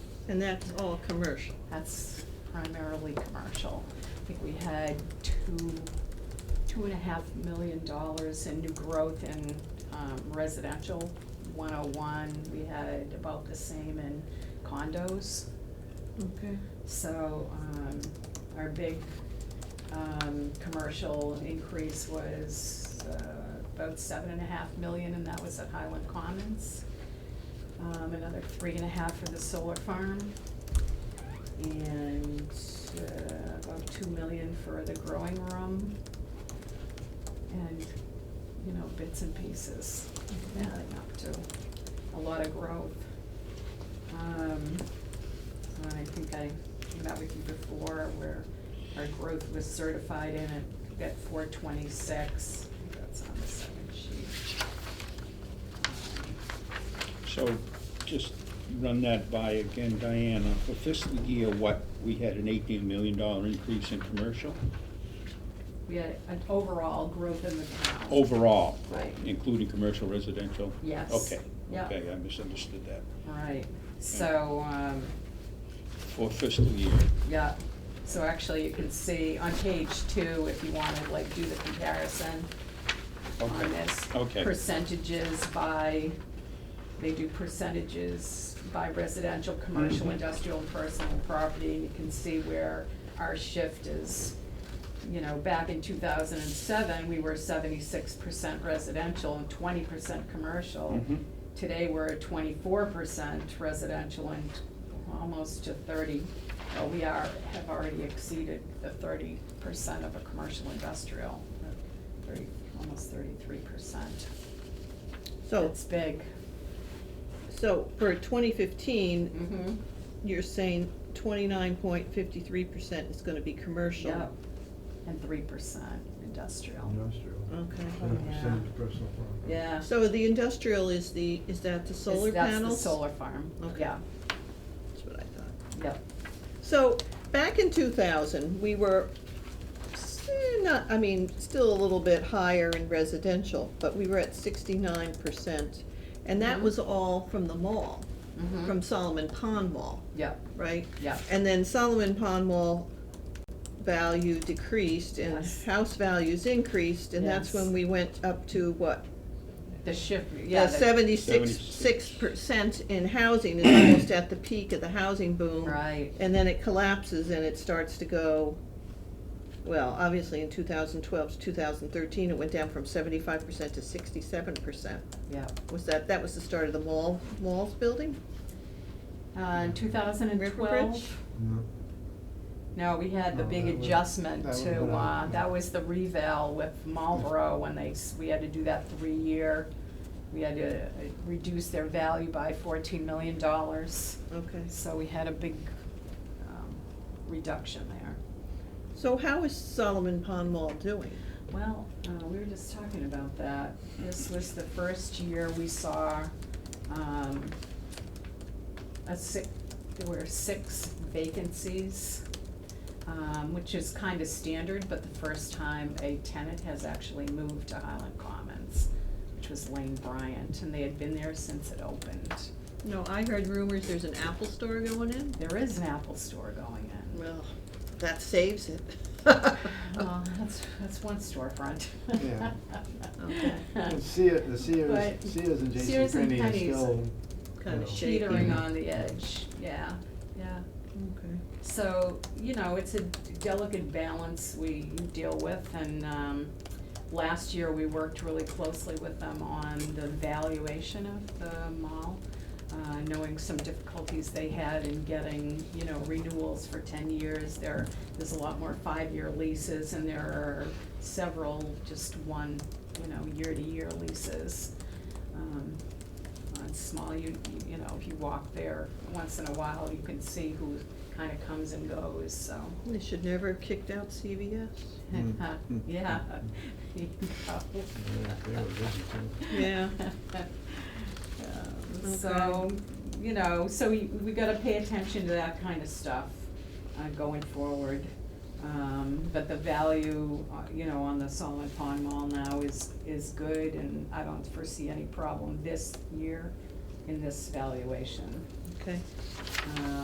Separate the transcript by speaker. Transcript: Speaker 1: And that's all commercial.
Speaker 2: That's primarily commercial. I think we had two, two and a half million dollars in new growth in um, residential, one oh one. We had about the same in condos.
Speaker 1: Okay.
Speaker 2: So, um, our big, um, commercial increase was, uh, about seven and a half million, and that was at Highland Commons. Um, another three and a half for the solar farm, and, uh, about two million for the growing room. And, you know, bits and pieces adding up to a lot of growth. Um, and I think I met with you before where our growth was certified in at, at four twenty-six. That's on the second sheet.
Speaker 3: So just run that by again, Diana. For fiscal year, what, we had an eighteen million dollar increase in commercial
Speaker 2: We had an overall growth in the town.
Speaker 3: overall,
Speaker 2: Right.
Speaker 3: including commercial residential?
Speaker 2: Yes.
Speaker 3: Okay,
Speaker 2: Yeah.
Speaker 3: okay, I misunderstood that.
Speaker 2: Right, so, um,
Speaker 3: For fiscal year,
Speaker 2: yeah, so actually you can see on page two, if you wanna like do the comparison
Speaker 3: Okay.
Speaker 2: on this.
Speaker 3: Okay.
Speaker 2: Percentages by, they do percentages by residential, commercial,
Speaker 3: Mhm.
Speaker 2: industrial, and personal property. And you can see where our shift is, you know, back in two thousand and seven, we were seventy-six percent residential and twenty percent commercial.
Speaker 1: Mm-hmm.
Speaker 3: Mhm.
Speaker 2: Today, we're at twenty-four percent residential and almost to thirty. Well, we are, have already exceeded the thirty percent of a commercial industrial, uh, thirty, almost thirty-three percent.
Speaker 1: So,
Speaker 2: It's big.
Speaker 1: so for twenty fifteen,
Speaker 2: Mm-hmm.
Speaker 1: you're saying twenty-nine point fifty-three percent is gonna be commercial.
Speaker 2: Yep. And three percent industrial.
Speaker 4: Industrial.
Speaker 1: Okay.
Speaker 4: Ten
Speaker 3: Hmm.
Speaker 4: percent
Speaker 2: Oh, Yeah.
Speaker 4: is personal property.
Speaker 2: Yeah.
Speaker 1: So the industrial is the, is that the solar
Speaker 2: It's-
Speaker 1: panels?
Speaker 2: That's the solar farm.
Speaker 1: Okay.
Speaker 2: Yeah,
Speaker 1: That's what I thought.
Speaker 2: yep.
Speaker 1: So, back in two thousand, we were s- eh, not, I mean, still a little bit higher in residential, but we were at sixty-nine percent. And that
Speaker 2: Mhm.
Speaker 1: was all from the mall,
Speaker 2: Mhm.
Speaker 1: from Solomon Pond Mall,
Speaker 2: Yep,
Speaker 1: right?
Speaker 2: yep.
Speaker 1: And then Solomon Pond Mall value decreased and
Speaker 2: Yes.
Speaker 1: house values increased, and that's
Speaker 2: Yes.
Speaker 1: when we went up to what?
Speaker 2: The shift, yeah. the-
Speaker 1: Seventy-six, six percent in housing is almost at the peak of the housing boom.
Speaker 2: Right,
Speaker 1: And then it collapses and it starts to go, well, obviously in two thousand twelve to two thousand thirteen, it went down from seventy-five percent to sixty-seven percent.
Speaker 2: yep.
Speaker 1: Was that, that was the start of the mall, malls building?
Speaker 2: Uh, in two thousand and
Speaker 1: Riverbridge?
Speaker 2: twelve,
Speaker 4: No,
Speaker 2: no, we had the
Speaker 4: No,
Speaker 2: big
Speaker 4: that was-
Speaker 2: adjustment
Speaker 4: that was
Speaker 2: to,
Speaker 4: what I-
Speaker 2: uh, that was the revale with Marlboro when they, s- we had to do that three-year. We had to uh, reduce their value by fourteen million dollars,
Speaker 1: Okay.
Speaker 2: so we had a big, um, reduction there.
Speaker 1: So how is Solomon Pond Mall doing?
Speaker 2: Well, uh, we were just talking about that. This was the first year we saw, um, a si- there were six vacancies, um, which is kind of standard, but the first time a tenant has actually moved to Highland Commons, which was Lane Bryant, and they had been there since it opened.
Speaker 1: No, I heard rumors there's an Apple store going in.
Speaker 2: There is an Apple store going in.
Speaker 1: Well, that saves it.
Speaker 2: Well, that's, that's one storefront.
Speaker 4: Yeah.
Speaker 1: Okay.
Speaker 4: And Sears, the Sears,
Speaker 2: But-
Speaker 4: Sears and J
Speaker 2: Sears
Speaker 4: C
Speaker 2: and
Speaker 4: Penney are
Speaker 2: Penney's.
Speaker 4: still.
Speaker 1: Kind of
Speaker 4: Yeah.
Speaker 1: shaky.
Speaker 2: teetering on the edge, yeah, yeah.
Speaker 1: Okay.
Speaker 2: So, you know, it's a delicate balance we deal with, and, um, last year we worked really closely with them on the valuation of the mall, uh, knowing some difficulties they had in getting, you know, renewals for ten years, there, there's a lot more five-year leases, and there are several just one, you know, year-to-year leases. Um, on small, you, you- you know, if you walk there once in a while, you can see who kind of comes and goes, so.
Speaker 1: They should never have kicked out CVS.
Speaker 4: Hmm.
Speaker 2: Yeah. You
Speaker 4: Yeah, they were busy too.
Speaker 1: Yeah.
Speaker 2: Um,
Speaker 1: Okay.
Speaker 2: So, you know, so we, we gotta pay attention to that kind of stuff, uh, going forward. Um, but the value, uh, you know, on the Solomon Pond Mall now is, is good, and I don't foresee any problem this year in this valuation.
Speaker 1: Okay.
Speaker 2: Um,